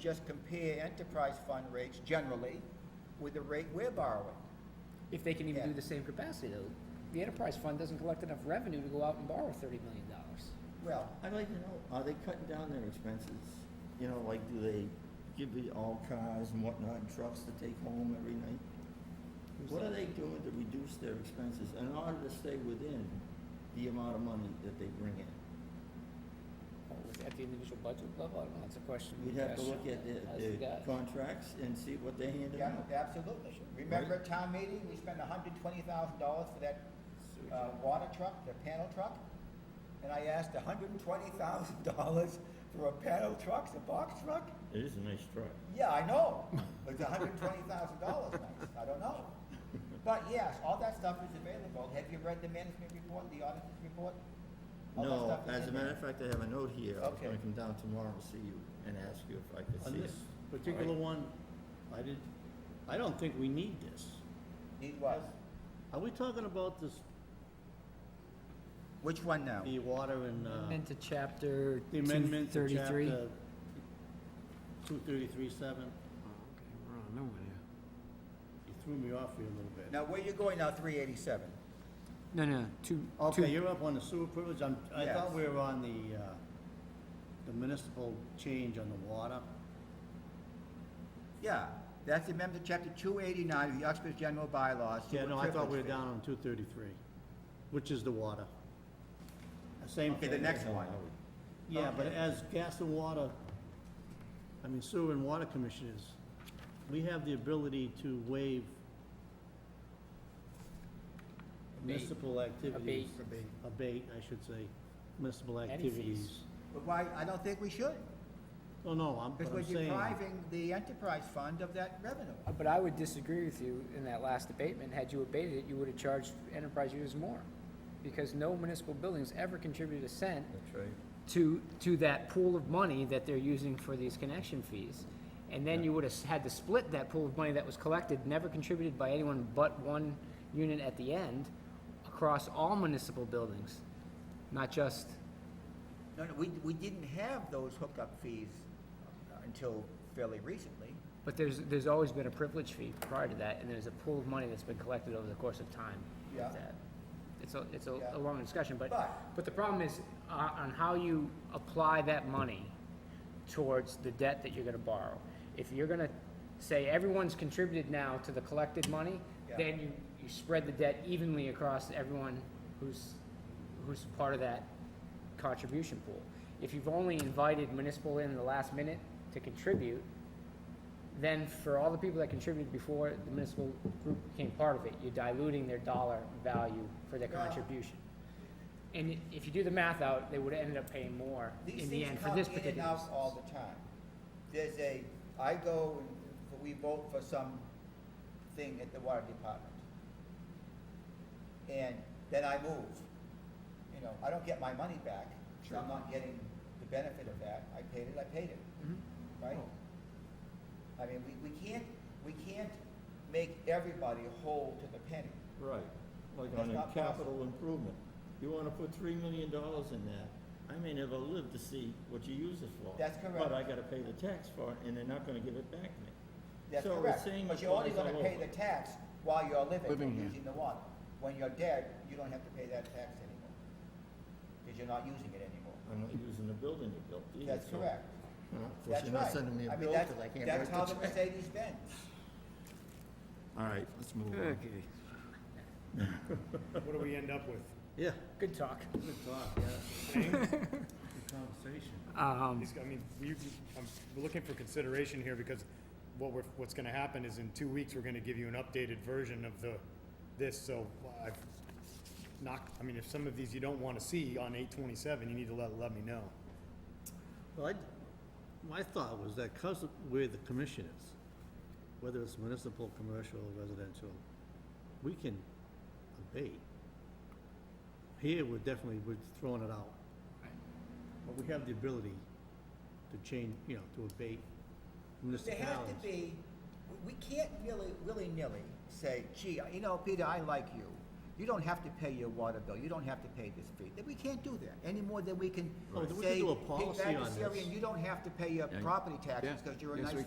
just compare enterprise fund rates generally with the rate we're borrowing. If they can even do Yeah. the same capacity, though, the enterprise fund doesn't collect enough revenue to go out and borrow thirty million dollars. Well, I'd like to know, are they cutting down their expenses? You know, like, do they give you all cars and whatnot, and trucks to take home every night? What are they doing to reduce their expenses in order to stay within the amount of money that they bring in? At the individual budget level, I don't know, that's a question. We'd have to Cash, look at their, as the guy. their contracts and see what they handed yeah, out. absolutely. Remember at town meeting, we spent hundred twenty thousand dollars for that, uh, water truck, the panel truck? And I asked hundred and twenty thousand dollars for a panel truck, a box truck? It is a nice truck. Yeah, I know. It's hundred and twenty thousand dollars nice. I don't know. But yes, all that stuff is available. Have you read the management report, the auditor's report? All that No, stuff is as a in there. matter of fact, I have a note here. I was Okay. gonna come down tomorrow and see you and ask you if I could On see it. this particular one, I did, I don't think we need this. Need what? Are we talking about this, Which one now? the water and, uh, Amendment to chapter the amendment to 233? chapter two thirty-three seven? Oh, Okay, we're on nowhere here. You threw me off here a little bit. Now, where you going now, three eighty-seven? No, no, two. Okay, two- you're up on the sewer privilege, I'm, I thought Yes. we were on the, uh, the municipal change on the water. Yeah, that's the amendment to chapter two eighty-nine of the Oxford General Bylaws. Yeah, no, I thought we were Privilege. down on two thirty-three, which is the water. The Same Okay, thing. the next one. Yeah, but Okay. as gas and water, I mean sewer and water commissioners, we have the ability to waive municipal activities. Abate. Abate, I should say, municipal Any fees. activities. But why, I don't think we should, Oh, no, I'm, because but we're I'm saying, depriving the enterprise fund of that revenue. But I would disagree with you in that last abatement. Had you abated it, you would have charged enterprise users more. Because no municipal buildings ever contribute a cent That's right. to, to that pool of money that they're using for these connection fees. And then you would have had to split that pool of money that was collected, never contributed by anyone but one unit at the end, across all municipal buildings, not just, No, no, we, we didn't have those hookup fees uh, until fairly recently. but there's, there's always been a privilege fee prior to that, and there's a pool of money that's been collected over the course of time. with Yeah. that. It's a, it's a Yeah. a long discussion, but, But- but the problem is uh, on how you apply that money towards the debt that you're gonna borrow. If you're gonna say everyone's contributed now to the collected money, Yeah. then you, you spread the debt evenly across everyone who's, who's part of that contribution pool. If you've only invited municipal in the last minute to contribute, then for all the people that contributed before the municipal group became part of it, you're diluting their dollar value for their Yeah. contribution. And if you do the math out, they would have ended up paying more These in the end things for come this in and particular. out instance. all the time. There's a, I go and we vote for some thing at the water department. And then I move. You know, I don't get my money back, so I'm not getting the benefit of that. I paid it, I paid it. Mm-hmm. Right? I mean, we, we can't, we can't make everybody whole to the penny. Right, like That's on a not capital improvement. You wanna put three million dollars in that, I may never live to see what you use it for. That's correct. But I gotta pay the tax for it, and they're not gonna give it back to me. That's So we're correct, saying but you're only applies gonna all pay over. the tax while you're living, Living here. using the water. When you're dead, you don't have to pay that tax anymore, because you're not using it anymore. I'm not using the building you built either. That's so- correct. Huh? That's you're not right. sending me a I mean, bill that's- 'cause I can't That's write how the the Mercedes Benz. All right, let's move on. Okay. What do we end up with? yeah, Good talk. good talk, yeah. Conversation. These- I mean, you, I'm looking for consideration here because what we're, what's gonna happen is in two weeks, we're gonna give you an updated version of the, this, so I've knocked, I mean, if some of these you don't wanna see on eight twenty-seven, you need to let, let me know. Well, I, my thought was that because of where the commission is, whether it's municipal, commercial, residential, we can abate. Here, we're definitely, we're throwing it out. But we have the ability to change, you know, to abate There has to municipalities. be, we- we can't really, willy-nilly say, gee, you know, Peter, I like you. you don't have to pay your water bill, you don't have to pay this fee. That- We can't do that, any more than we can Oh, then we could say, do a "Hey, policy on this." Bagdasarian, you don't have to pay your Yeah. property taxes Yeah. because you're a Yes, nice we